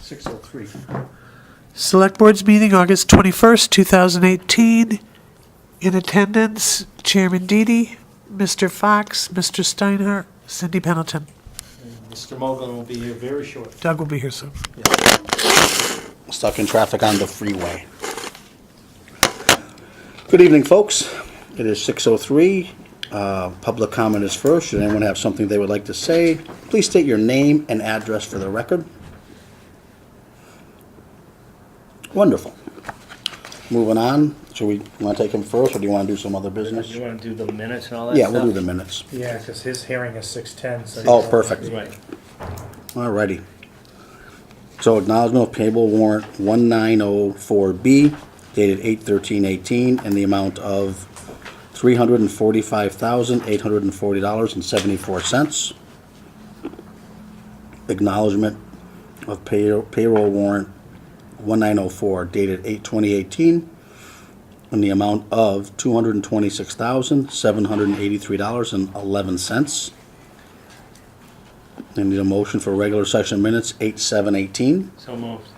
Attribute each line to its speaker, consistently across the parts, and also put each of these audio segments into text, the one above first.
Speaker 1: 603.
Speaker 2: Select Board's meeting, August 21st, 2018. In attendance, Chairman Deedy, Mr. Fox, Mr. Steinhardt, Cindy Pendleton.
Speaker 1: Mr. Mogul will be here very shortly.
Speaker 2: Doug will be here soon.
Speaker 3: stuck in traffic on the freeway. Good evening, folks. It is 6:03. Uh, Public comment is first. Should anyone have something they would like to say, please state your name and address for the record. Wonderful. Moving on, should we, want to take him first, or do you want to do some other business?
Speaker 4: You want to do the minutes and all that
Speaker 3: Yeah,
Speaker 4: stuff?
Speaker 3: we'll do the minutes.
Speaker 5: Yeah, because his hearing is six ten, so.
Speaker 3: Oh, perfect.
Speaker 4: Right.
Speaker 3: Alrighty. So acknowledgement of payable warrant 1904B dated 8/13/18 in the amount of $345,840.74. Acknowledgement of pay- payroll warrant 1904 dated 8/20/18 in the amount of $226,783.11. I need a motion for regular session minutes, eight, seven, eighteen.
Speaker 4: So moved.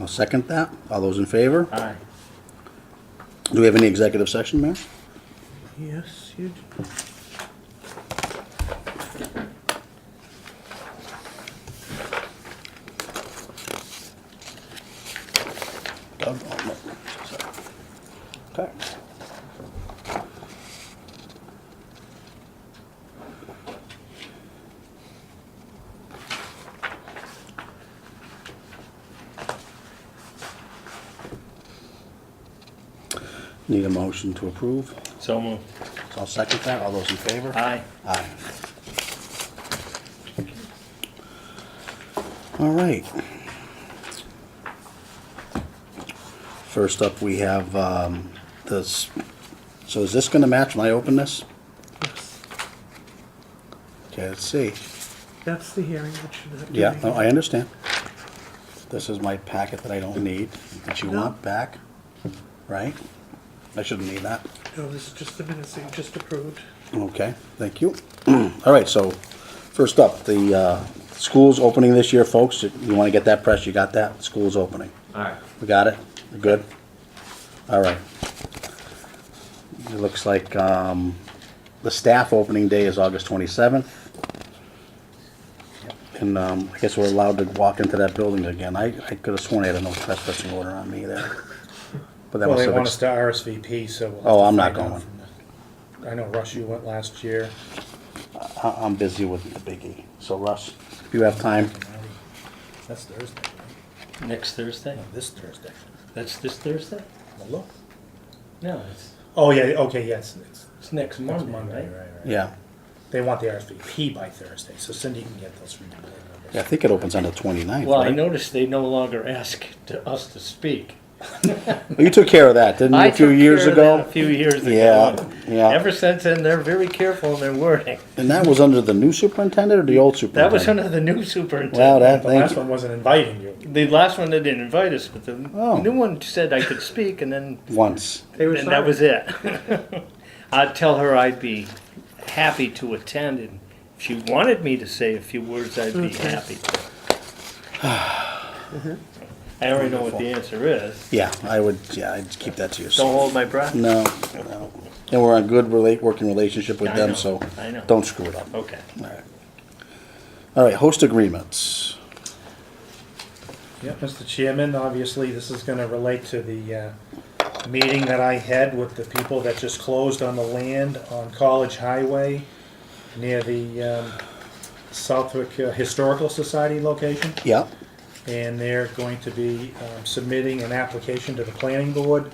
Speaker 3: I'll second that. All those in favor?
Speaker 4: Aye.
Speaker 3: Do we have any executive session, Mayor?
Speaker 2: Yes, you do.
Speaker 3: Doug? Oh, no. Okay. Need a motion to approve.
Speaker 4: So moved.
Speaker 3: I'll second that. All those in favor?
Speaker 4: Aye.
Speaker 3: Aye. All right. First up, we have um, this, so is this going to match when I open this? Okay, let's see.
Speaker 2: That's the hearing that you're not doing.
Speaker 3: Yeah, no, I understand. This is my packet that I don't need, that you want back, right? I shouldn't need that.
Speaker 2: No, this is just the minutes that you just approved.
Speaker 3: Okay, thank you. All right, so first up, the uh, school's opening this year, folks. You want to get that press, you got that? School's opening.
Speaker 4: All right.
Speaker 3: We got it? We're Good? All right. It looks like um, the staff opening day is August 27th. And um, I guess we're allowed to walk into that building again. I I could have sworn I had a no trespassing order on me there. But that
Speaker 5: Well,
Speaker 3: must
Speaker 5: they
Speaker 3: have
Speaker 5: want us
Speaker 3: ex-
Speaker 5: to RSVP, so. we'll have
Speaker 3: Oh,
Speaker 5: to
Speaker 3: I'm not
Speaker 5: find out
Speaker 3: going.
Speaker 5: from the- I know Rush, you went last year.
Speaker 3: I- I'm busy with the biggie. So Russ, if you have time,
Speaker 5: That's Thursday, right?
Speaker 4: Next Thursday?
Speaker 5: This Thursday.
Speaker 4: That's this Thursday?
Speaker 5: Hello?
Speaker 4: No, it's,
Speaker 5: Oh, yeah, okay, yes, it's
Speaker 4: it's next
Speaker 5: next
Speaker 4: Monday,
Speaker 5: Monday,
Speaker 4: right?
Speaker 5: right, right.
Speaker 3: yeah.
Speaker 5: They want the RSVP by Thursday, so Cindy can get those from you.
Speaker 3: Yeah, I think it opens on the 29th.
Speaker 4: Well, I
Speaker 3: right?
Speaker 4: noticed they no longer ask to us to speak.
Speaker 3: Well, You took care of that, didn't you,
Speaker 4: I
Speaker 3: a few
Speaker 4: took
Speaker 3: years
Speaker 4: care of
Speaker 3: ago?
Speaker 4: that A few years ago.
Speaker 3: Yeah, yeah.
Speaker 4: Ever since then, they're very careful in their wording.
Speaker 3: And that was under the new superintendent or the old
Speaker 4: That
Speaker 3: superintendent?
Speaker 4: was under the new
Speaker 3: Wow,
Speaker 4: superintendent.
Speaker 3: that,
Speaker 5: The
Speaker 3: thank
Speaker 5: last
Speaker 3: you.
Speaker 5: one wasn't inviting you.
Speaker 4: The last one, they didn't invite us, but the
Speaker 3: Oh.
Speaker 4: new one said I could speak, and then
Speaker 3: Once.
Speaker 2: They were
Speaker 4: And that
Speaker 2: sorry.
Speaker 4: was it. I'd tell her I'd be happy to attend, and if she wanted me to say a few words, I'd be
Speaker 2: Okay.
Speaker 4: happy. I already know what the answer is.
Speaker 3: Yeah, I would, yeah, I'd keep that to
Speaker 4: Don't
Speaker 3: yourself.
Speaker 4: hold my breath.
Speaker 3: No, no. And we're on good relate, working relationship with
Speaker 4: I
Speaker 3: them,
Speaker 4: know,
Speaker 3: so
Speaker 4: I know. Oh.
Speaker 3: don't screw it up.
Speaker 4: Okay.
Speaker 3: All right. All right, host agreements.
Speaker 5: Yep, Mr. Chairman, obviously, this is gonna relate to the, uh, meeting that I had with the people that just closed on the land on College Highway near the, um, Southwick uh, Historical Society location,
Speaker 3: Yeah,
Speaker 5: and they're going to be, um, submitting an application to the planning board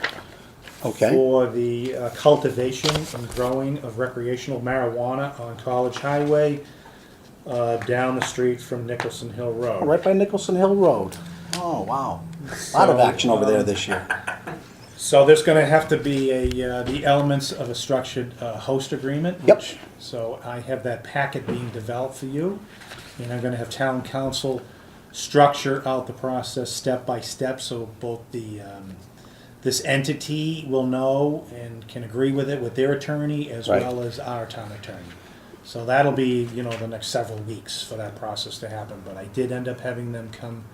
Speaker 3: okay,
Speaker 5: for the uh, cultivation and growing of recreational marijuana on College Highway, uh, down the street from Nicholson Hill Road.
Speaker 3: right by Nicholson Hill Road. Oh, wow. Lot of
Speaker 5: So,
Speaker 3: action over there
Speaker 5: um,
Speaker 3: this year.
Speaker 5: So there's going to have to be a, uh, the elements of a structured uh, host agreement.
Speaker 3: Yep.
Speaker 5: which- So I have that packet being developed for you, and I'm going to have town council structure out the process step by step, so both the, um, this entity will know and can agree with it with their attorney as
Speaker 3: Right.
Speaker 5: well as our town attorney. So that'll be, you know, the next several weeks for that process to happen, but I did end up having them come